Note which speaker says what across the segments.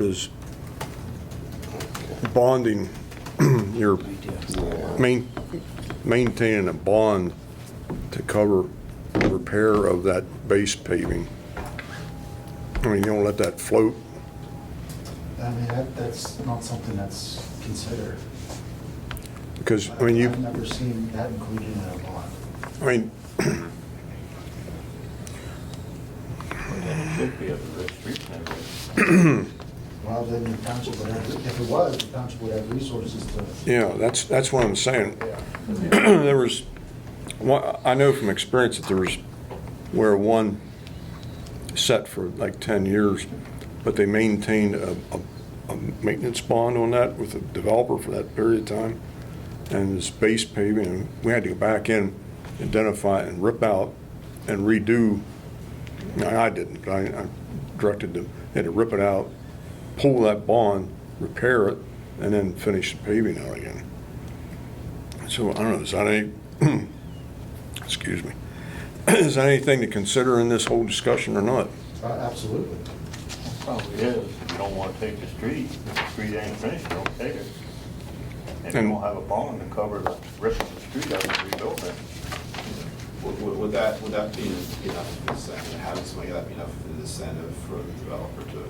Speaker 1: is bonding, you're main, maintaining a bond to cover repair of that base paving. I mean, you don't let that float.
Speaker 2: I mean, that, that's not something that's considered.
Speaker 1: Because, I mean, you,
Speaker 2: I've never seen that included in a bond.
Speaker 1: I mean,
Speaker 3: It should be up to the street number.
Speaker 2: Well, then the township would have, if it was, the township would have resources to.
Speaker 1: yeah, that's, that's what I'm saying. There was, one- I know from experience that there was where one set for like 10 years, but they maintained a, a, a maintenance bond on that with the developer for that period of time. And this base paving, and we had to go back in, identify and rip out and redo. No, I didn't, but I, I directed them, they had to rip it out, pull that bond, repair it, and then finish the paving out again. So I don't know, is that any, excuse me, is that anything to consider in this whole discussion or not?
Speaker 2: Uh, Absolutely.
Speaker 3: Probably is. You don't want to take the street. If the street ain't finished, don't take it. And you
Speaker 1: And-
Speaker 3: don't have a bond to cover the rest of the street out and rebuild it.
Speaker 4: Would, would- would that, would that be enough for the incentive, having something like that be enough for the incentive for the developer to?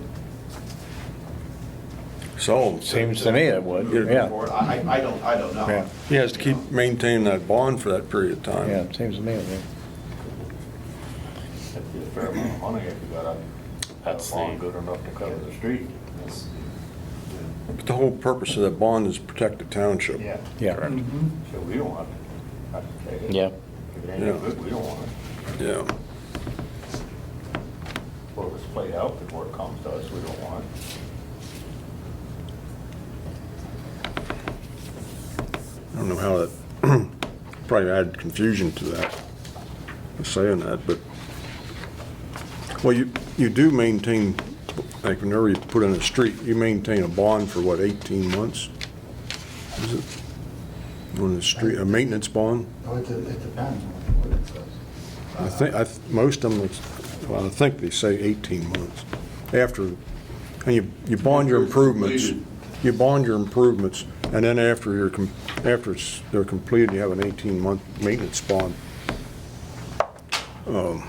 Speaker 1: So.
Speaker 5: Seems to me it would,
Speaker 4: move
Speaker 5: yeah.
Speaker 4: forward? I, I- I don't, I don't
Speaker 5: Yeah.
Speaker 4: know.
Speaker 1: He has to keep maintaining that bond for that period of time.
Speaker 5: Yeah, it seems to me, it would.
Speaker 3: That'd be a fair amount of money if you got a- a
Speaker 6: That's
Speaker 3: bond
Speaker 6: the-
Speaker 3: good enough to cover the street.
Speaker 4: That's-
Speaker 1: But the whole purpose of that bond is protect the township.
Speaker 3: Yeah,
Speaker 5: yeah.
Speaker 3: so we don't want to have to take it.
Speaker 6: Yeah.
Speaker 3: If it ain't good, we don't want it.
Speaker 1: Yeah.
Speaker 3: Well, it's played out before it comes to us, we don't want it.
Speaker 1: I don't know how that, probably add confusion to that, saying that, but, well, you, you do maintain, like whenever you put in a street, you maintain a bond for what, 18 months? Is it? On the street, a maintenance bond?
Speaker 2: No, Oh, it, de- it depends on what it says.
Speaker 1: I think, I, th- most of them, it's- well, I think they say 18 months after, and you, you bond your improvements. You bond your improvements, and then after you're, com- after it's- they're completed, you have an 18-month maintenance bond. Um,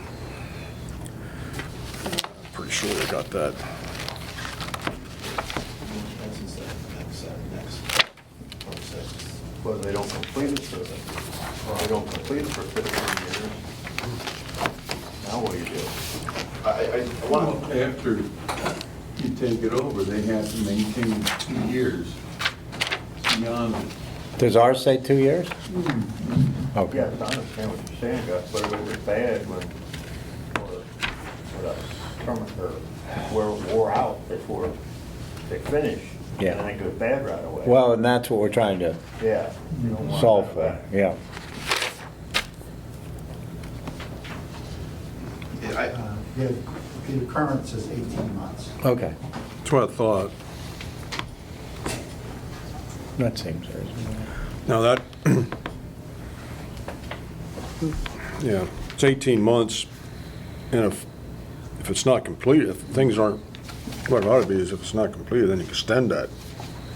Speaker 1: Pretty sure they got that.
Speaker 4: That's incentive, next, uh, next. process.
Speaker 3: Well, they don't complete it for, they don't complete it for fifteen years. Now what do you do?
Speaker 4: I, I, I
Speaker 7: Well,
Speaker 4: want,
Speaker 7: after you take it over, they have to maintain two years beyond it.
Speaker 5: Does ours say two years?
Speaker 3: Yeah,
Speaker 5: Okay.
Speaker 3: I understand what you're saying, Gus, but it was bad when, or, or the terminator, were wore out before they finish.
Speaker 5: Yeah.
Speaker 3: And then it goes bad right away.
Speaker 5: Well, and that's what we're trying to
Speaker 3: Yeah. you don't want that
Speaker 5: solve for,
Speaker 3: back.
Speaker 5: yeah.
Speaker 4: yeah, I,
Speaker 2: Uh, Yeah, the current says 18 months.
Speaker 5: Okay.
Speaker 1: That's what I thought.
Speaker 5: That seems reasonable.
Speaker 1: Now that, yeah, it's 18 months, and if, if it's not completed, if things aren't, what it ought to be is if it's not completed, then you extend that.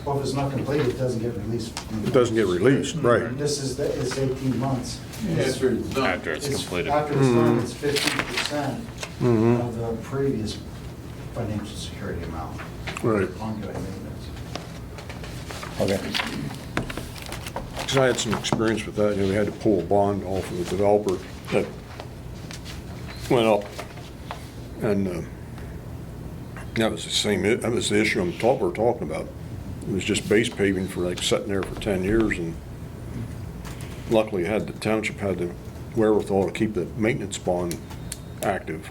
Speaker 2: Well, if it's not completed, it doesn't get released.
Speaker 1: It doesn't get released, right?
Speaker 2: This is, the- it's 18 months. It's-
Speaker 7: After it's done.
Speaker 6: After it's
Speaker 2: it's-
Speaker 6: completed.
Speaker 2: After it's
Speaker 1: Mm-hmm.
Speaker 2: done, it's 50% of the previous financial security amount.
Speaker 1: Right.
Speaker 2: Ongoing maintenance.
Speaker 5: Okay.
Speaker 1: Because I had some experience with that, you know, we had to pull a bond off of the developer that went up. And uh, that was the same, i- that was the issue I'm talk, we're talking about. It was just base paving for like sitting there for 10 years and luckily had, the township had the wherewithal to keep the maintenance bond active.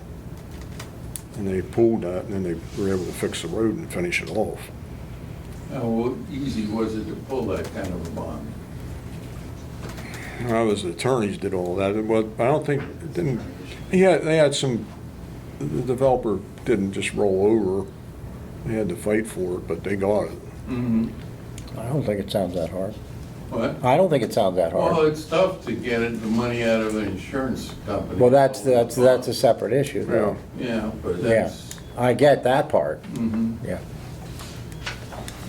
Speaker 1: And they pulled that and then they were able to fix the road and finish it off.
Speaker 7: How easy was it to pull that kind of a bond?
Speaker 1: When I was the attorneys did all that, it was, I don't think, it didn't, he had, they had some, the developer didn't just roll over. They had to fight for it, but they got it.
Speaker 5: I don't think it sounds that hard.
Speaker 7: What?
Speaker 5: I don't think it sounds that
Speaker 7: Well,
Speaker 5: hard.
Speaker 7: it's tough to get it- the money out of an insurance company.
Speaker 5: Well, that's, that's, that's a separate issue, though.
Speaker 7: Yeah, but
Speaker 5: Yeah.
Speaker 7: that's,
Speaker 5: I get that part.
Speaker 7: mhm.
Speaker 5: Yeah.